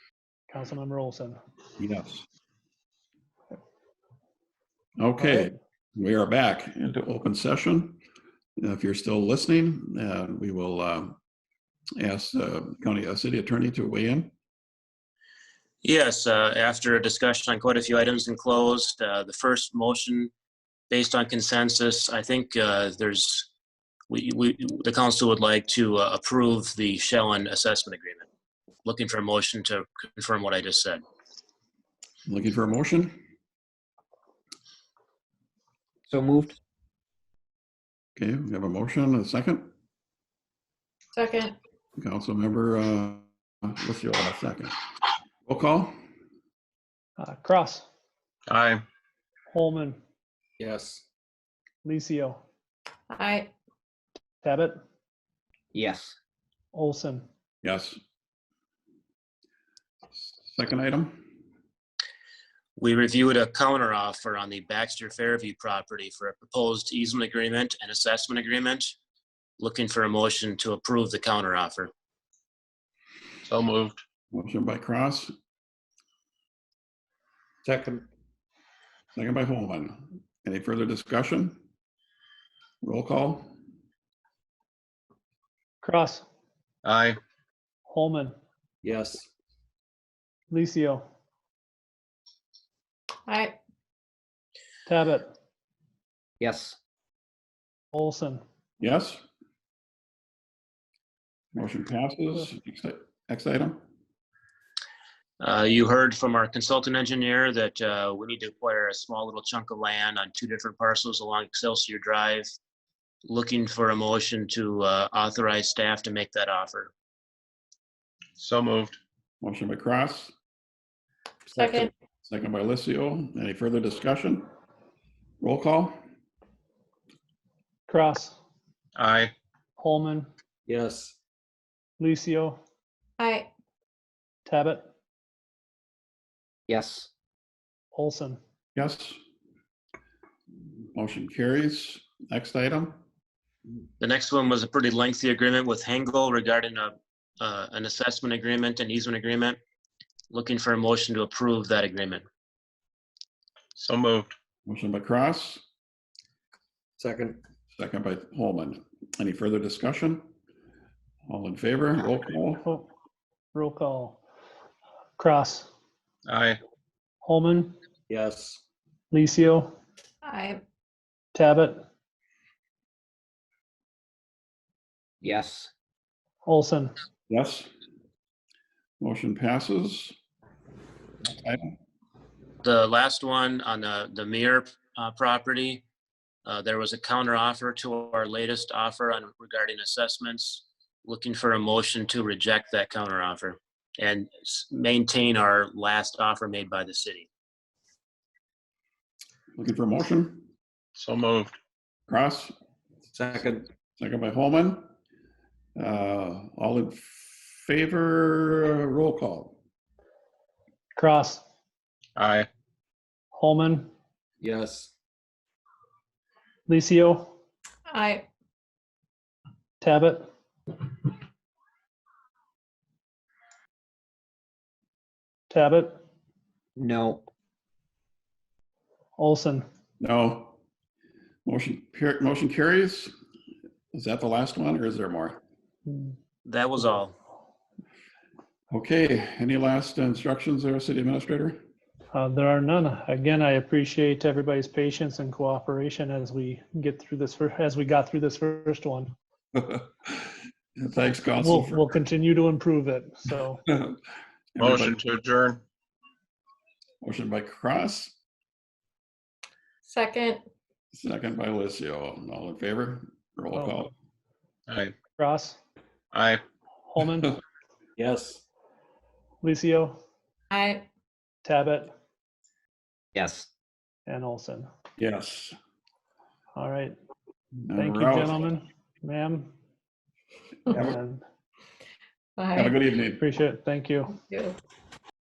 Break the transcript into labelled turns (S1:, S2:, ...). S1: Councilmember Olson.
S2: Yes. Okay, we are back into open session. Uh, If you're still listening, uh, we will uh, ask uh, county, uh, city attorney to weigh in.
S3: Yes, uh, after a discussion on quite a few items and closed, uh, the first motion based on consensus, I think uh, there's, we, we, the council would like to uh, approve the Shellen assessment agreement. Looking for a motion to confirm what I just said.
S2: Looking for a motion?
S4: So moved.
S2: Okay, we have a motion, a second.
S5: Second,
S2: Councilmember, uh, let's see, a second. Roll call?
S1: Uh, Cross,
S6: Aye.
S1: Holman,
S6: Yes.
S1: Licio,
S5: aye.
S1: Tabit,
S4: Yes.
S1: Olson.
S2: Yes. Second item?
S3: We reviewed a counter offer on the Baxter Fairview property for a proposed easement agreement and assessment agreement. Looking for a motion to approve the counter offer.
S6: So moved.
S2: Motion by Cross,
S6: Second.
S2: Second by Holman. Any further discussion? Roll call?
S1: Cross,
S6: Aye.
S1: Holman,
S6: Yes.
S1: Licio,
S5: Aye.
S1: Tabit,
S4: Yes.
S1: Olson.
S2: Yes? Motion passes. Next i- Next item?
S3: Uh, You heard from our consultant engineer that uh, we need to acquire a small little chunk of land on two different parcels along Excelsior Drive. Looking for a motion to uh, authorize staff to make that offer.
S6: So moved.
S2: Motion by Cross,
S5: Second,
S2: second by Licio. Any further discussion? Roll call?
S1: Cross,
S6: Aye.
S1: Holman,
S6: Yes.
S1: Licio,
S5: aye.
S1: Tabit,
S4: Yes.
S1: Olson.
S2: Yes? Motion carries. Next item?
S3: The next one was a pretty lengthy agreement with Hengel regarding a, uh, an assessment agreement and easement agreement. Looking for a motion to approve that agreement.
S6: So moved.
S2: Motion by Cross,
S6: Second.
S2: second by Holman. Any further discussion? All in favor? Roll call?
S1: Oh, Roll call. Cross,
S6: Aye.
S1: Holman,
S6: Yes.
S1: Licio,
S5: Aye.
S1: Tabit,
S4: Yes.
S1: Olson.
S2: Yes. Motion passes. Next item.
S3: The last one on the, the Mir uh, property, uh, there was a counter offer to our latest offer on regarding assessments. Looking for a motion to reject that counter offer and s- maintain our last offer made by the city.
S2: Looking for a motion?
S6: So moved.
S2: Cross,
S6: Second.
S2: second by Holman. Uh, All in favor, roll call.
S1: Cross,
S6: Aye.
S1: Holman,
S6: Yes.
S1: Licio,
S5: Aye.
S1: Tabit, Tabit,
S4: No.
S1: Olson.
S2: No. Motion, par- motion carries. Is that the last one or is there more?
S3: That was all.
S2: Okay, any last instructions there, city administrator?
S1: Uh, There are none. Again, I appreciate everybody's patience and cooperation as we get through this, fir- as we got through this first one.
S2: Thanks, council.
S1: We'll,
S2: for-
S1: we'll continue to improve it, so.
S6: Motion to adjourn.
S2: Motion by Cross,
S5: Second,
S2: second by Licio. All in favor, roll
S1: Oh.
S2: call.
S6: Aye.
S1: Ross,
S6: Aye.
S1: Holman,
S6: Yes.
S1: Licio,
S5: aye.
S1: Tabit,
S4: Yes.
S1: and Olson.
S2: Yes.
S1: All right.
S2: And
S1: Thank you,
S2: we're out.
S1: gentlemen, ma'am.
S2: Have a-
S1: and
S2: Have a
S5: Aye.
S2: good evening.
S1: Appreciate it. Thank you.
S5: Thank you.